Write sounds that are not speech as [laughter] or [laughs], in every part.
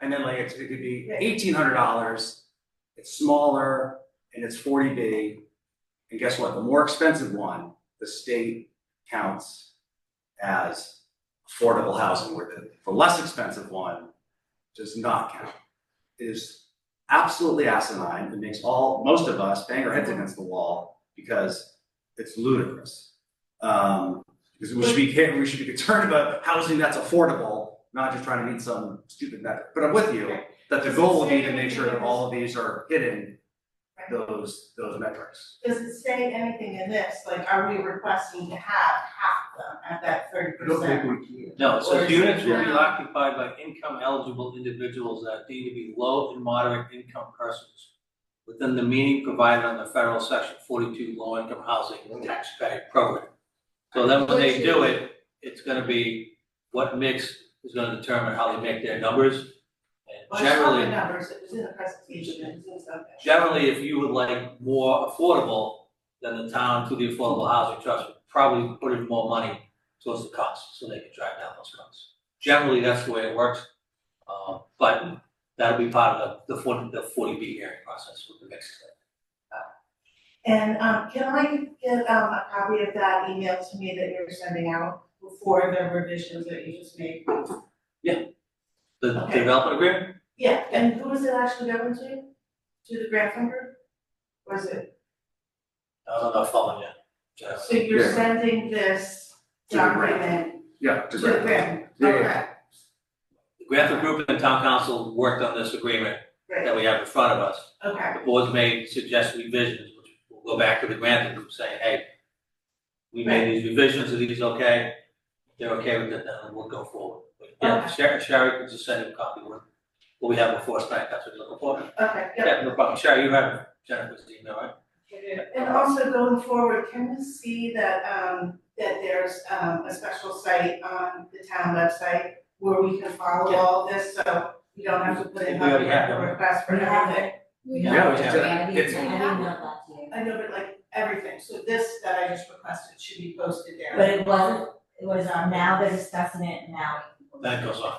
and then like it's, it could be eighteen hundred dollars. It's smaller and it's forty B. And guess what? The more expensive one, the state counts as affordable housing, where the, the less expensive one does not count. It is absolutely asinine. It makes all, most of us bang our heads against the wall because it's ludicrous. Um, because we should be, ca- we should be concerned about housing that's affordable, not just trying to meet some stupid metric. But I'm with you, that the goal will be to make sure that all of these are hitting those, those metrics. Does it say anything in this, like, are we requesting to have half of them at that thirty I don't think percent? we can. No, it Or says is units it will be now? occupied by income eligible individuals that are deemed to be low and moderate income persons. Within the meaning provided on the federal section forty-two low income housing tax credit program. So then when they do it, it's gonna be what mix is gonna determine how they make their numbers. And Well, it's not the generally, numbers, it was in the presentation, it was in something. generally, if you would like more affordable, then the town through the Affordable Housing Trust would probably put in more money towards the cost, so they could drive down those costs. Generally, that's the way it works, uh, but that'll be part of the, the forty, the forty B hearing process with the mix. And, um, can I get, um, a copy of that email to me that you're sending out before the revisions that you just made? The Okay. development agreement, Yeah, and who is it actually going to? To the grant funder? Or is it, I don't know if I'm on yet, Jeff. so you're Yeah. sending this To the grant. document Yeah. to just the right. grant, Yeah, yeah. okay, The Grantham Group and Town Council worked on this agreement great, that we have in front of us. okay, The board's made suggested revisions, which will go back to the granting group saying, hey, we made these revisions, are these okay? If They're okay with it, then we'll go forward. But yeah, Sherry, Sherry can just send him a copy of what- what we have before tonight, that's what you're looking for. okay, yep. Yeah, no problem. Sherry, you have Jennifer's email, right? And also going forward, can we see that, um, that there's, um, a special site on the town website where we can follow Yeah. all this, so we don't have to put in We already have a one. request for We have everything? We Yeah, don't, we have we already, It's- I emailed that to you. I know, but like everything, so this that I just requested should be posted there. But it wasn't, it was, uh, now they're discussing it, now. That goes on.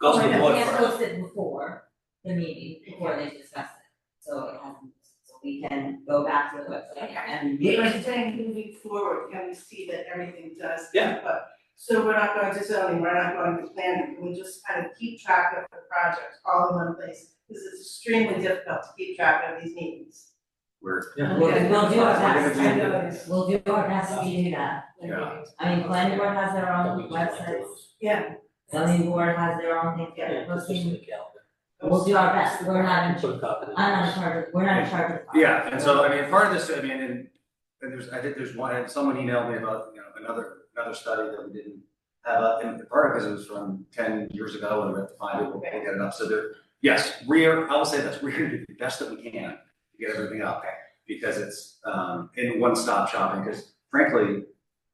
Goes to the Okay. board It was first. posted before the meeting, before they discussed it, so it hasn't, so we can go back to the website and. But I'm saying moving forward, can we see that everything does Yeah. keep up? So we're not going to zoning, we're not going to planning, can we just kind of keep track of the projects all in one place? Because it's extremely difficult to keep track of these meetings. We're, Yeah. We'll, we'll do We're our gonna best, do we'll do our best to do that. Yeah. I mean, planning board has their own websites, Yeah. zoning board has their own thing, Yeah, they're it's just in posting, the calendar. we'll do our best, we're not in, Put a copy of it. I'm not in charge, of- we're not in charge of. Yeah, and so, I mean, part of this, I mean, and, and there's, I think there's one, and someone emailed me about, you know, another, another study that we didn't have up, and part of it was from ten years ago, and we have to find it, we'll we'll get it up, so there, yes, we're, I will say this, [laughs] we're gonna do the best that we can to get everything up, because it's, um, in one-stop shopping, because frankly,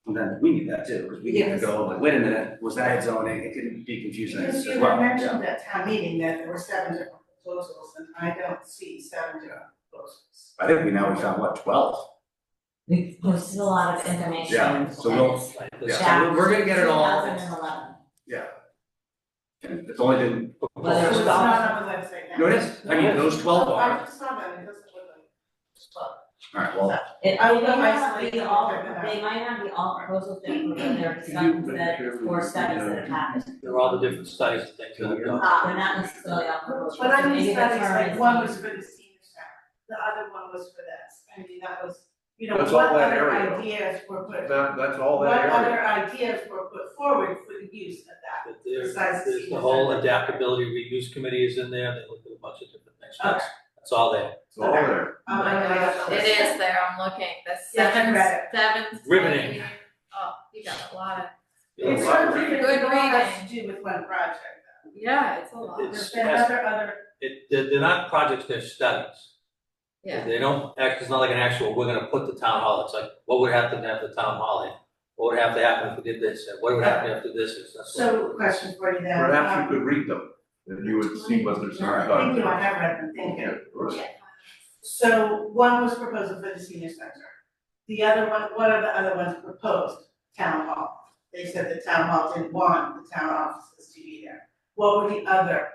then we need that too, because we need to go, like, wait a minute, was that zoning, it can be confusing Because as you well. had mentioned at town meeting that there were seven different proposals, and I don't see seven different proposals. I think we now, we found, what, twelve? We posted a lot of information. Yeah, so and we'll- it's Like this. Yeah. so we're- we're gonna get it all. back in 2011. Yeah. And it's only been. Whether So it's it's not on the website now. No, it is, I mean, those twelve I are, just saw them, it doesn't look like it's twelve. alright, well, It, oh, I they would might not isolate be them all, and then- they might not be all proposals that were, but there are some that, or studies that have happened. There are all the different studies and things that have gone. Uh, they're not necessarily all proposals, But I so mean, maybe studies, that's like, one was for the senior center, the other one was for this, I mean, that was, you know, That's what all that other area. ideas were put, That, that's all what that area. other ideas were put forward for the use of that. But there's, Besides the there's the senior whole center. adaptability reuse committee is in there, they looked at a bunch of different things, that's, Okay. that's all there. It's all there. Oh Um, I know that's- It is there, I'm looking, the Yeah, I seventh, read seventh. Riveting. study. Oh, you got a lot of, It's It's- something that Good all has to do with one project, though. yeah, it's a lot. There's It's, been has- other, other, it, they're, they're not projects, they're studies. Yeah. They don't act, it's not like an actual, we're gonna put the town hall, it's like, what would happen to have the town hall in? What would have to happen if we did this, and what would happen after this, and that's what. so question for you then. Perhaps you um, could read them, and you would see what there's. Thank you, I have read them, thank you. Yeah, right. So one was proposal for the senior center. The other one, one of the other ones proposed town hall. They said the town hall didn't want the town offices to be there. What were the other